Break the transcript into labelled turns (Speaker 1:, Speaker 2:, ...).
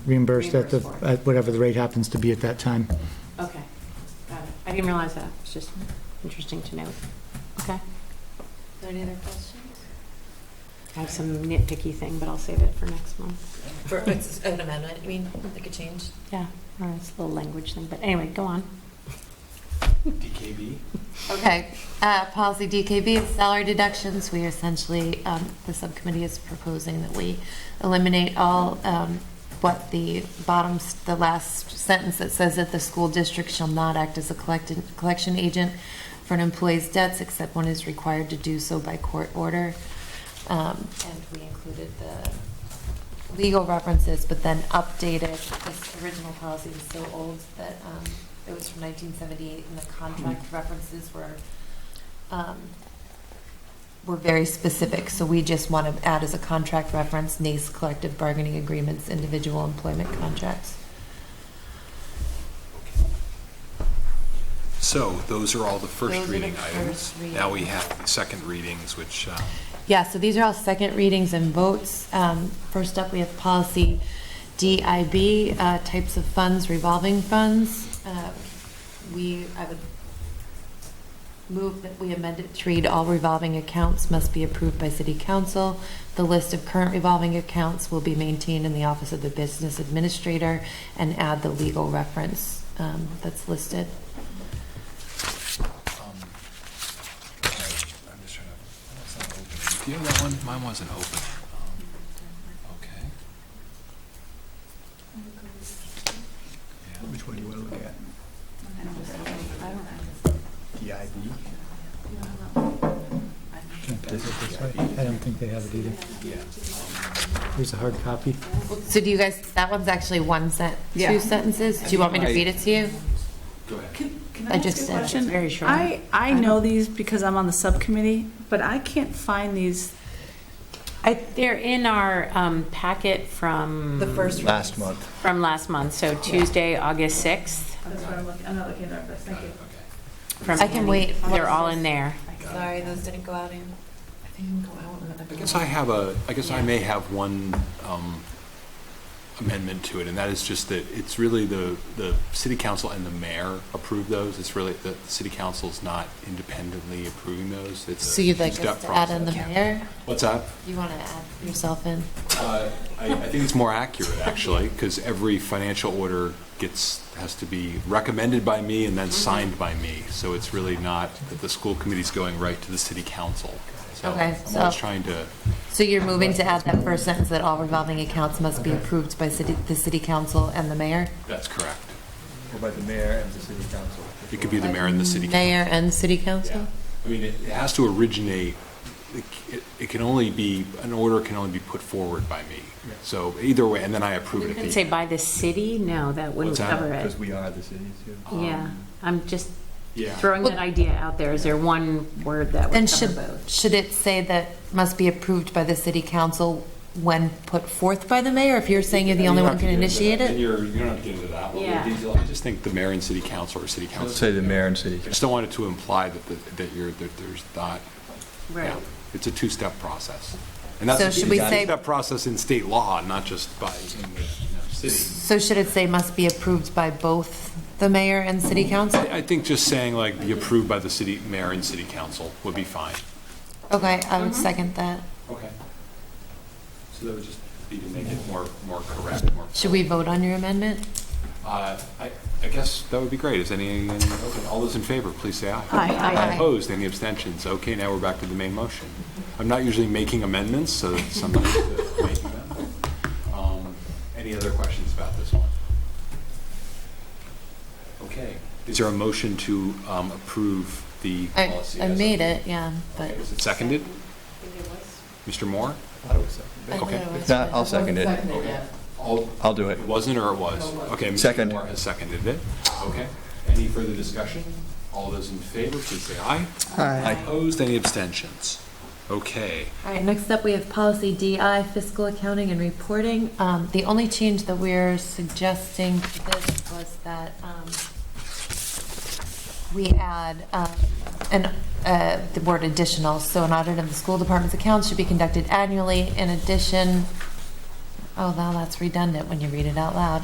Speaker 1: reimbursed at the,
Speaker 2: Reimbursed for.
Speaker 1: at whatever the rate happens to be at that time.
Speaker 2: Okay, got it. I didn't realize that. It's just interesting to note. Okay.
Speaker 3: Any other questions?
Speaker 2: I have some nitpicky thing, but I'll save it for next month.
Speaker 3: For, it's an amendment, you mean, like a change?
Speaker 2: Or it's a little language thing, but anyway, go on.
Speaker 4: DKB.
Speaker 3: Okay, uh, policy DKB, salary deductions, we essentially, um, the subcommittee is proposing that we eliminate all, um, what the bottom, s- the last sentence that says that the school district shall not act as a collected, collection agent for an employee's debts except when is required to do so by court order. Um, and we included the legal references, but then updated, this original policy was so old that, um, it was from nineteen seventy-eight, and the contract references were, um, were very specific, so we just want to add as a contract reference, NACE collective bargaining agreements, individual employment contracts.
Speaker 4: So those are all the
Speaker 3: Those are
Speaker 4: first
Speaker 3: the
Speaker 4: reading
Speaker 3: first
Speaker 4: items.
Speaker 3: reading.
Speaker 4: Now we have the second readings, which, um,
Speaker 3: Yeah, so these are all second readings and votes. Um, First up, we have policy DIB, uh, types of funds, revolving funds. Uh, We, I would move that we amend it to read all revolving accounts must be approved by city council. The list of current revolving accounts will be maintained in the office of the business administrator and add the legal reference um, that's listed.
Speaker 4: um, I'm just trying to, that's not open. Do you have that one? Mine wasn't open. Um, Okay. Yeah.
Speaker 5: Which one do you want to look at? DIB?
Speaker 1: Is it this way? I don't think they have it either.
Speaker 4: Yeah.
Speaker 1: Here's a hard copy.
Speaker 3: So do you guys, that one's actually one sent, two sentences? Do you want me to read it to you?
Speaker 4: Go ahead.
Speaker 3: I just said.
Speaker 2: It's very short.
Speaker 6: I, I know these because I'm on the subcommittee, but I can't find these.
Speaker 2: I, they're in our um, packet from.
Speaker 3: The first
Speaker 5: Mm, Last month.
Speaker 2: From last month, so Tuesday, August 6th.
Speaker 6: That's what I'm looking, I'm not looking at this, thank you.
Speaker 2: from
Speaker 3: I can
Speaker 2: Annie.
Speaker 3: wait.
Speaker 2: They're all in there.
Speaker 3: Sorry, those didn't go out in. I think they didn't go out in
Speaker 4: I guess I have a, I guess I may have one um, amendment to it, and that is just that it's really the, the city council and the mayor approve those. It's really, the city council's not independently approving those. It's a
Speaker 3: So you'd like
Speaker 4: two-step
Speaker 3: us to add in the
Speaker 4: process.
Speaker 3: mayor?
Speaker 4: What's up?
Speaker 3: You want to add yourself in?
Speaker 4: Uh, I I think it's more accurate, actually, because every financial order gets, has to be recommended by me and
Speaker 3: Mm-hmm.
Speaker 4: then signed by me. So it's really not that the school committee's going right to the city council. So
Speaker 3: Okay,
Speaker 4: I'm always
Speaker 3: so-
Speaker 4: trying to,
Speaker 3: So you're moving to add that first sentence that all revolving accounts must be approved by city, the city council and the mayor?
Speaker 4: that's correct.
Speaker 5: Or by the mayor and the city council?
Speaker 4: It could be the mayor and the city. council.
Speaker 3: Mayor and city council?
Speaker 4: Yeah. I mean, it it has to originate, it c- it- it can only be, an order can only be put forward by me.
Speaker 5: Yeah.
Speaker 4: So either way, and then I approve it.
Speaker 2: You
Speaker 4: at
Speaker 2: could
Speaker 4: the
Speaker 2: say
Speaker 4: end.
Speaker 2: by the city? No, that wouldn't
Speaker 4: What's that?
Speaker 2: cover it.
Speaker 5: Because we are the city, too.
Speaker 2: Yeah, I'm just
Speaker 4: Yeah.
Speaker 2: throwing
Speaker 3: Well-
Speaker 2: that idea out there. Is there one word that
Speaker 3: Then
Speaker 2: would cover
Speaker 3: should,
Speaker 2: both?
Speaker 3: should it say that must be approved by the city council when put forth by the mayor? If you're saying you're the
Speaker 4: You
Speaker 3: only
Speaker 4: don't
Speaker 3: one
Speaker 4: have to
Speaker 3: can
Speaker 4: get into
Speaker 3: initiate
Speaker 4: that. Then
Speaker 3: it?
Speaker 4: you're, you don't have to get into that level
Speaker 2: Yeah.
Speaker 4: of detail. I just think the mayor and city council or city council.
Speaker 5: Let's say the mayor and city
Speaker 4: I just don't want it to imply that, the- that you're, that there's not,
Speaker 2: Right.
Speaker 4: yeah. It's a two-step process.
Speaker 3: So should we say-
Speaker 4: Two-step process in state law, not just by, you know, city.
Speaker 3: So should it say must be approved by both the mayor and city council?
Speaker 4: I I think just saying like, be approved by the city, mayor and city council would be fine.
Speaker 3: Okay, I would second that.
Speaker 4: Okay. So that would just be to make it more, more correct, more.
Speaker 3: Should we vote on your amendment?
Speaker 4: Uh, I, I guess that would be great. Is any, okay, all those in favor, please say aye.
Speaker 6: Aye. Aye.
Speaker 3: Aye.
Speaker 4: Opposed, any abstentions? Okay, now we're back to the main motion. I'm not usually making amendments, so somebody's making them. Um, Any other questions about this one? Okay, is there a motion to um, approve the
Speaker 3: I,
Speaker 4: policy?
Speaker 3: I
Speaker 4: as-
Speaker 3: made it, yeah, but.
Speaker 4: Okay, Was it seconded? Mr. Moore?
Speaker 5: I would second
Speaker 3: I
Speaker 5: it.
Speaker 3: thought
Speaker 4: Okay.
Speaker 3: it was-
Speaker 5: If not, I'll second it.
Speaker 4: All,
Speaker 5: I'll do it.
Speaker 4: It wasn't or it was? Okay. Mr.
Speaker 5: Second.
Speaker 4: Moore has seconded it. Okay. Any further discussion? All those in favor, please say aye.
Speaker 5: Aye.
Speaker 4: Opposed, any abstentions? Okay.
Speaker 3: All right, next up, we have policy DI, fiscal accounting and reporting. Um, the only change that we're suggesting to this was that, um, we add, um, an, uh, the word additional, so an audit of the school department's accounts should be conducted annually. In addition, Oh, now that's redundant when you read it out loud.